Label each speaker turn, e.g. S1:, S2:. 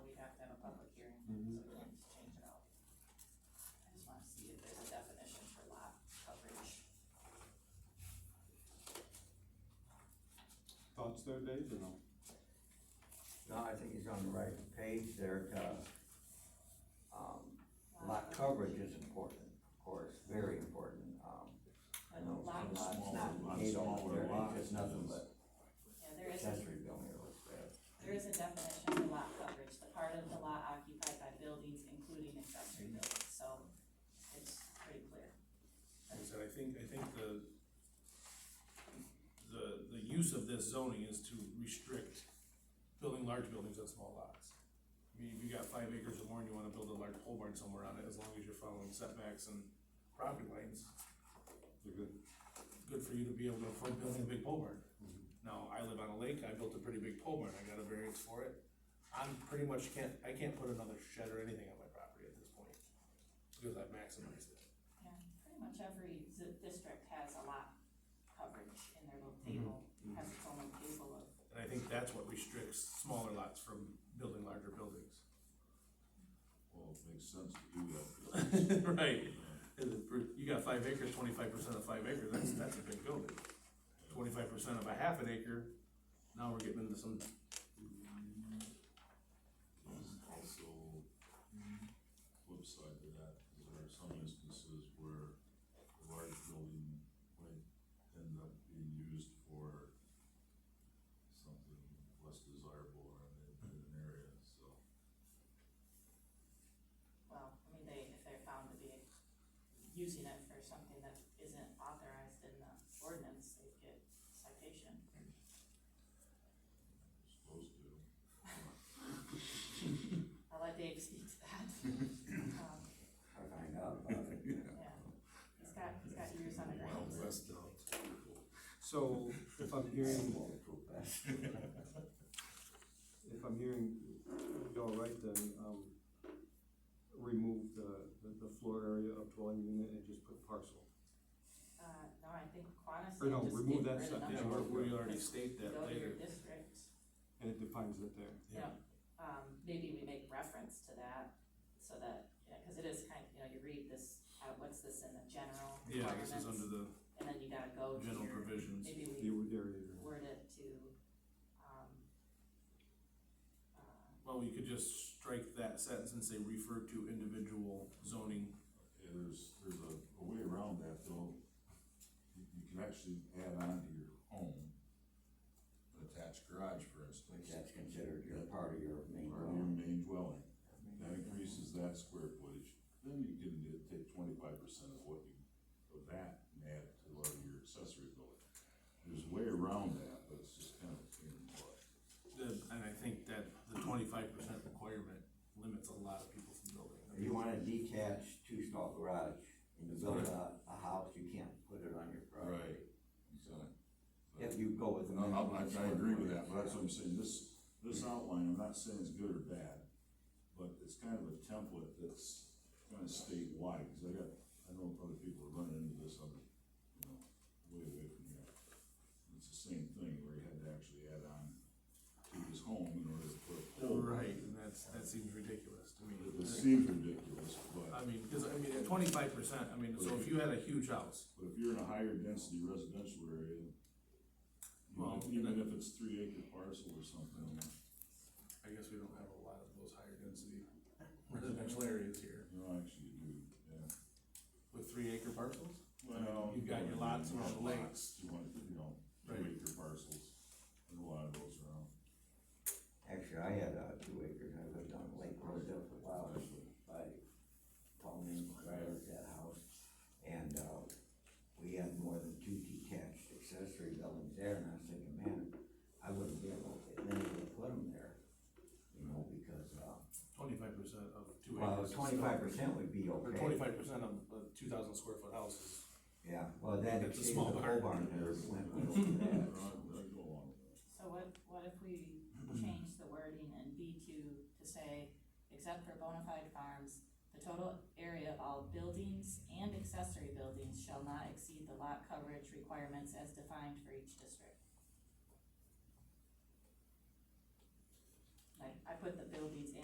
S1: do, there's a definition for lot coverage.
S2: Thoughts there, Dave, or no?
S3: No, I think he's on the right page there to, um, lot coverage is important, of course, very important, um. I know it's
S1: Lot
S3: a lot, it's
S1: coverage.
S3: not
S2: Lot
S3: eight all
S2: smaller
S3: there,
S2: lots,
S3: it's just nothing
S2: yes.
S3: but
S1: Yeah, there is, a-
S3: accessory building or what's that.
S1: there is a definition for lot coverage, the part of the lot occupied by buildings, including accessory buildings, so it's pretty clear.
S4: Like I said, I think, I think the, the, the use of this zoning is to restrict building large buildings on small lots. I mean, if you got five acres or more and you wanna build a large pole barn somewhere on it, as long as you're following setbacks and property lines,
S2: You're good.
S4: good for you to be able to afford building a big pole barn. Now, I live on a lake, I built a pretty big pole barn, I got a variance for it. I'm pretty much can't, I can't put another shed or anything on my property at this point, because I've maximized it.
S1: Yeah, pretty much every zip district has a lot coverage in their little table, has its own little table of,
S4: And I think that's what restricts smaller lots from building larger buildings.
S5: Well, it makes sense to do that.
S4: Right. You got five acres, twenty-five percent of five acres, that's, that's a big building. Twenty-five percent of a half an acre, now we're getting into some,
S5: There's also flip side to that, is there are some instances where a large building might end up being used for something less desirable in an- in an area, so.
S1: well, I mean, they, if they're found to be using it for something that isn't authorized in the ordinance, they get citation.
S5: Supposed to.
S1: I'll let Dave speak to that. Um,
S3: I find out about it.
S1: Yeah, he's got, he's got years on the ground.
S5: Wild West
S2: So, if I'm hearing,
S3: Bulletproof vest.
S2: if I'm hearing y'all right, then, um, remove the, the- the floor area of dwelling unit and just put parcel.
S1: Uh, no, I think Quanis
S2: Or no,
S1: just
S2: remove
S1: get
S2: that
S1: rid of
S2: sentence.
S4: yeah,
S1: number.
S4: we're- we already state
S1: Go
S4: that
S1: to your
S4: later.
S1: district,
S2: And it defines it there.
S1: um, maybe we make reference to that, so that, you know, cause it is kind, you know, you read this, uh, what's this in the general
S4: Yeah, this is under
S1: requirements?
S4: the
S1: And then you gotta go to
S4: general
S1: your,
S4: provisions.
S1: maybe
S2: The
S1: we
S2: area.
S1: word it to, um, uh,
S4: Well, we could just strike that sentence and say refer to individual zoning.
S5: Yeah, there's, there's a, a way around that though. You, you can actually add on to your home, an attached garage, for
S3: Which
S5: instance.
S3: that's considered your part of your main
S5: Or your
S3: dwelling.
S5: main dwelling, that increases that square footage, then you can get- take twenty-five percent of what you, of that and add to like your accessory building. There's a way around that, but it's just kind of a pain in the butt.
S4: The, and I think that the twenty-five percent requirement limits a lot of people from building.
S3: If you want a detached two-stall garage and you build a, a house, you can't put it on your property.
S5: Exactly.
S3: If you go with the.
S5: No,
S3: minimum
S5: I, I
S3: square
S5: agree with that,
S3: footage,
S5: but that's
S3: yeah.
S5: what I'm saying, this, this outline, I'm not saying it's good or bad, but it's kind of a template that's kind of statewide, cause I got, I know other people are running into this other, you know, way away from here. It's the same thing where you had to actually add on to his home in order to put a pole.
S4: Right, and that's, that seems ridiculous to me.
S5: It it seems ridiculous, but,
S4: I mean, cause I mean, at twenty-five percent, I mean, so if you had a huge house,
S5: but if you're in a higher density residential area, even-
S4: Well,
S5: even if it's three acre parcel or something,
S4: I guess we don't have a lot of those higher density residential areas here.
S5: you know, actually you do, yeah.
S4: With three acre parcels?
S5: Well,
S4: You've got your lots around the lakes.
S5: You want, you know,
S4: Right.
S5: two acre parcels, and a lot of those around.
S3: Actually, I had, uh, two acres, I lived on Lake Road there for a while, by Tony, right at that house. And, uh, we had more than two detached accessory buildings there, and I was thinking, man, I wouldn't be able, to then to put them there, you know, because, uh,
S4: Twenty-five percent of two
S3: well,
S4: acres.
S3: twenty-five percent would be
S4: Or
S3: okay.
S4: twenty-five percent of a two thousand square foot house is,
S3: Yeah, well, that
S4: That's a
S3: exceeded the
S4: small
S3: whole barn
S4: barn.
S3: there, went right over that.
S5: I go along with that.
S1: So what, what if we change the wording in B two to say, except for bona fide farms, the total area of all buildings and accessory buildings shall not exceed the lot coverage requirements as defined for each district? Like, I put the buildings and